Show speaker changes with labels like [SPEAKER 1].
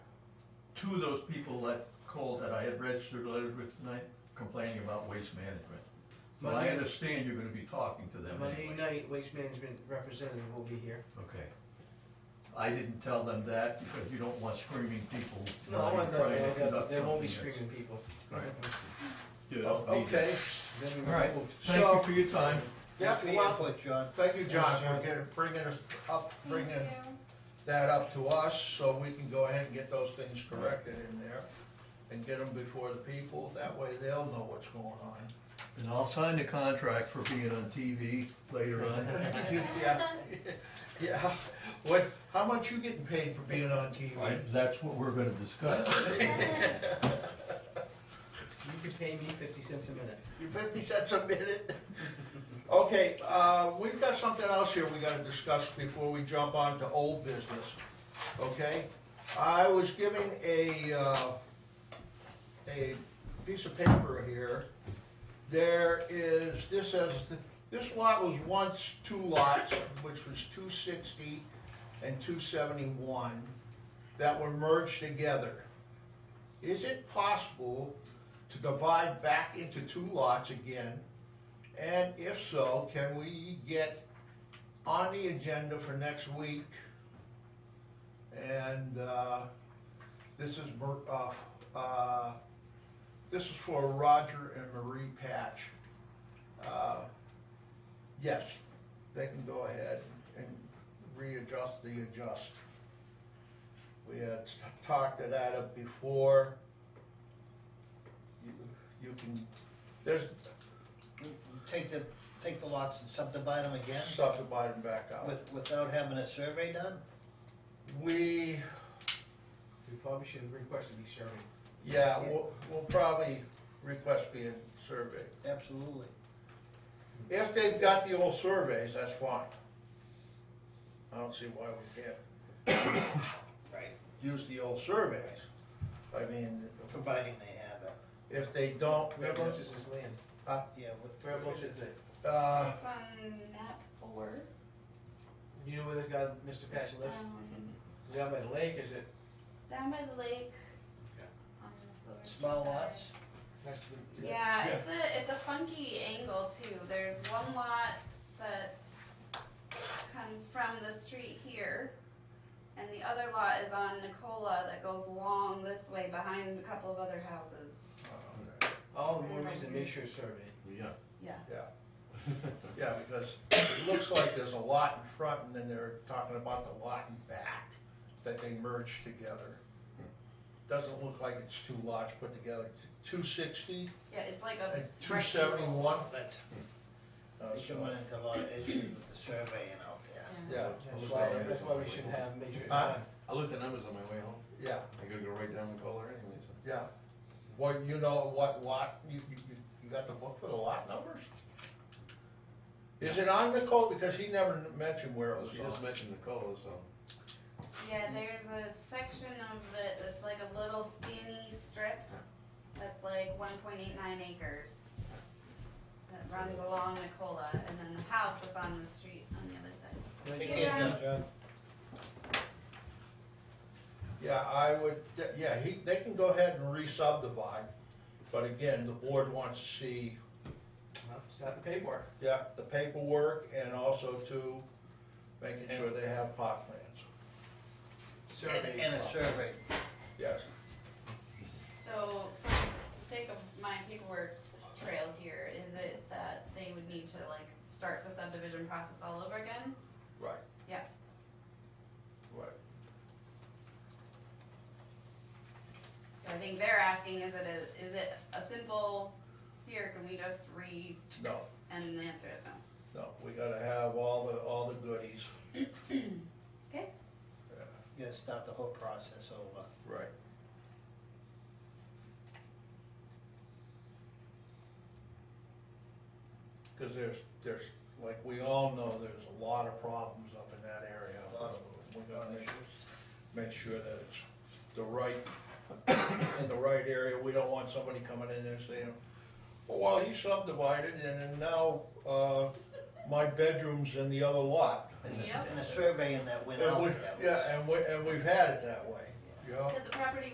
[SPEAKER 1] two of those people that called that I had registered letters with tonight complaining about waste management. So I
[SPEAKER 2] Monday-
[SPEAKER 1] understand you're gonna be talking to them
[SPEAKER 2] Monday
[SPEAKER 1] anyway.
[SPEAKER 2] night, Waste Management representative will be here.
[SPEAKER 1] Okay. I didn't tell them that because you don't want screaming people.
[SPEAKER 2] No,
[SPEAKER 1] while
[SPEAKER 2] I
[SPEAKER 1] you're
[SPEAKER 2] want
[SPEAKER 1] trying to
[SPEAKER 2] that,
[SPEAKER 1] conduct
[SPEAKER 2] there won't be
[SPEAKER 1] something
[SPEAKER 2] screaming people.
[SPEAKER 1] Right. that's-
[SPEAKER 3] O-
[SPEAKER 1] Yeah, I'll be there.
[SPEAKER 3] Oh, Okay,
[SPEAKER 2] Then we
[SPEAKER 1] All right,
[SPEAKER 2] moved.
[SPEAKER 1] thank you
[SPEAKER 3] So-
[SPEAKER 1] for your time.
[SPEAKER 3] that's the input, John. Thank you, John, for
[SPEAKER 4] John.
[SPEAKER 3] getting, bringing us up,
[SPEAKER 5] Thank
[SPEAKER 3] bringing
[SPEAKER 5] you.
[SPEAKER 3] that up to us, so we can go ahead and get those things corrected in there and get them before the people, that way they'll know what's going on.
[SPEAKER 1] And I'll sign the contract for being on TV later on.
[SPEAKER 3] Yeah, yeah, what, how much you getting paid for being on TV?
[SPEAKER 1] Right, That's what we're gonna discuss.
[SPEAKER 2] You can pay me fifty cents a minute.
[SPEAKER 3] You fifty cents a minute? Okay, uh, we've got something else here we gotta discuss before we jump on to old business, okay? I was given a, uh, a piece of paper here. There is, this says, this lot was once two lots, which was two sixty and two seventy-one, that were merged together. Is it possible to divide back into two lots again? And if so, can we get on the agenda for next week? And, uh, this is, Mer- uh, uh, this is for Roger and Marie Patch. Uh, Yes, they can go ahead and readjust the adjust. We had talked it out of before you you can, there's
[SPEAKER 6] Take the, take the lots and subdivide them again
[SPEAKER 3] subdivide them back out.
[SPEAKER 6] with, without having a survey done?
[SPEAKER 3] We,
[SPEAKER 2] We probably should have requested these survey.
[SPEAKER 3] yeah, we'll, we'll probably request being surveyed.
[SPEAKER 6] Absolutely.
[SPEAKER 3] If they've got the old surveys, that's fine. I don't see why we can't
[SPEAKER 6] Right.
[SPEAKER 3] use the old surveys. I mean,
[SPEAKER 6] Providing they have it,
[SPEAKER 3] if they don't,
[SPEAKER 2] Whereabouts is this land?
[SPEAKER 6] yeah. with-
[SPEAKER 2] Whereabouts is that?
[SPEAKER 3] uh,
[SPEAKER 5] It's on map four.
[SPEAKER 2] You know where this guy, Mr. Patch lives?
[SPEAKER 5] Um,
[SPEAKER 2] Is it down by the lake, is it,
[SPEAKER 5] it's down by the lake.
[SPEAKER 2] Yeah.
[SPEAKER 5] on the Silver
[SPEAKER 6] Small
[SPEAKER 5] Shore side.
[SPEAKER 6] lots?
[SPEAKER 2] that's the.
[SPEAKER 5] Yeah,
[SPEAKER 3] Yeah.
[SPEAKER 5] it's a, it's a funky angle too. There's one lot that comes from the street here. And the other lot is on Nicola that goes long this way behind a couple of other houses.
[SPEAKER 2] All the more reason, make sure it's surveyed.
[SPEAKER 1] Yeah.
[SPEAKER 5] Yeah.
[SPEAKER 3] yeah, because it looks like there's a lot in front and then they're talking about the lot in back that they merged together. Doesn't look like it's two lots put together, two sixty
[SPEAKER 5] Yeah, it's like a.
[SPEAKER 3] and two Uh, seventy-one.
[SPEAKER 6] They should run into a lot of issues with the surveying out there.
[SPEAKER 5] rectangle.
[SPEAKER 3] Yeah,
[SPEAKER 2] That's why, that's why we should have, make sure it's
[SPEAKER 3] Huh?
[SPEAKER 2] done.
[SPEAKER 4] I looked at numbers on my way home.
[SPEAKER 3] yeah,
[SPEAKER 4] I gotta go right down the color anyway, so.
[SPEAKER 3] yeah. Well, you know what lot, you, you, you- you got the book for the lot numbers? Is it on Nicole? Because he never mentioned where it was
[SPEAKER 4] She just
[SPEAKER 3] on.
[SPEAKER 4] mentioned the color, so.
[SPEAKER 5] Yeah, there's a section of it that's like a little skinny strip that's like one point eight nine acres. That
[SPEAKER 4] So
[SPEAKER 5] runs
[SPEAKER 4] that's-
[SPEAKER 5] along Nicola and then the house is on the street on the other side.
[SPEAKER 6] Take
[SPEAKER 5] Yeah.
[SPEAKER 6] care, John.
[SPEAKER 3] Yeah, I would, yeah, he, they can go ahead and re-subdivide, but again, the board wants to see,
[SPEAKER 2] Well, Stop the paperwork.
[SPEAKER 3] yeah, the paperwork and also to making sure they have pot plans,
[SPEAKER 6] And,
[SPEAKER 2] Survey.
[SPEAKER 6] and a survey.
[SPEAKER 3] yes.
[SPEAKER 5] So for the sake of my paperwork trail here, is it that they would need to like start the subdivision process all over again?
[SPEAKER 3] Right.
[SPEAKER 5] Yeah.
[SPEAKER 3] Right.
[SPEAKER 5] So I think they're asking, is it a, is it a simple, here, can we just read,
[SPEAKER 3] No,
[SPEAKER 5] and the answer is no.
[SPEAKER 3] no, we gotta have all the, all the goodies.
[SPEAKER 6] You gotta start the whole process over.
[SPEAKER 3] Right. Cause there's, there's, like, we all know there's a lot of problems up in that area, a lot of, we gotta make, make sure that it's the right, in the right area, we don't want somebody coming in there saying, well, well, he subdivided and then now, uh, my bedroom's in the other lot.
[SPEAKER 6] And the,
[SPEAKER 5] Yep.
[SPEAKER 6] and the surveying that went
[SPEAKER 3] And
[SPEAKER 6] out
[SPEAKER 3] we,
[SPEAKER 6] there was.
[SPEAKER 3] yeah, and we, and we've had it that way, you know?
[SPEAKER 5] Did the property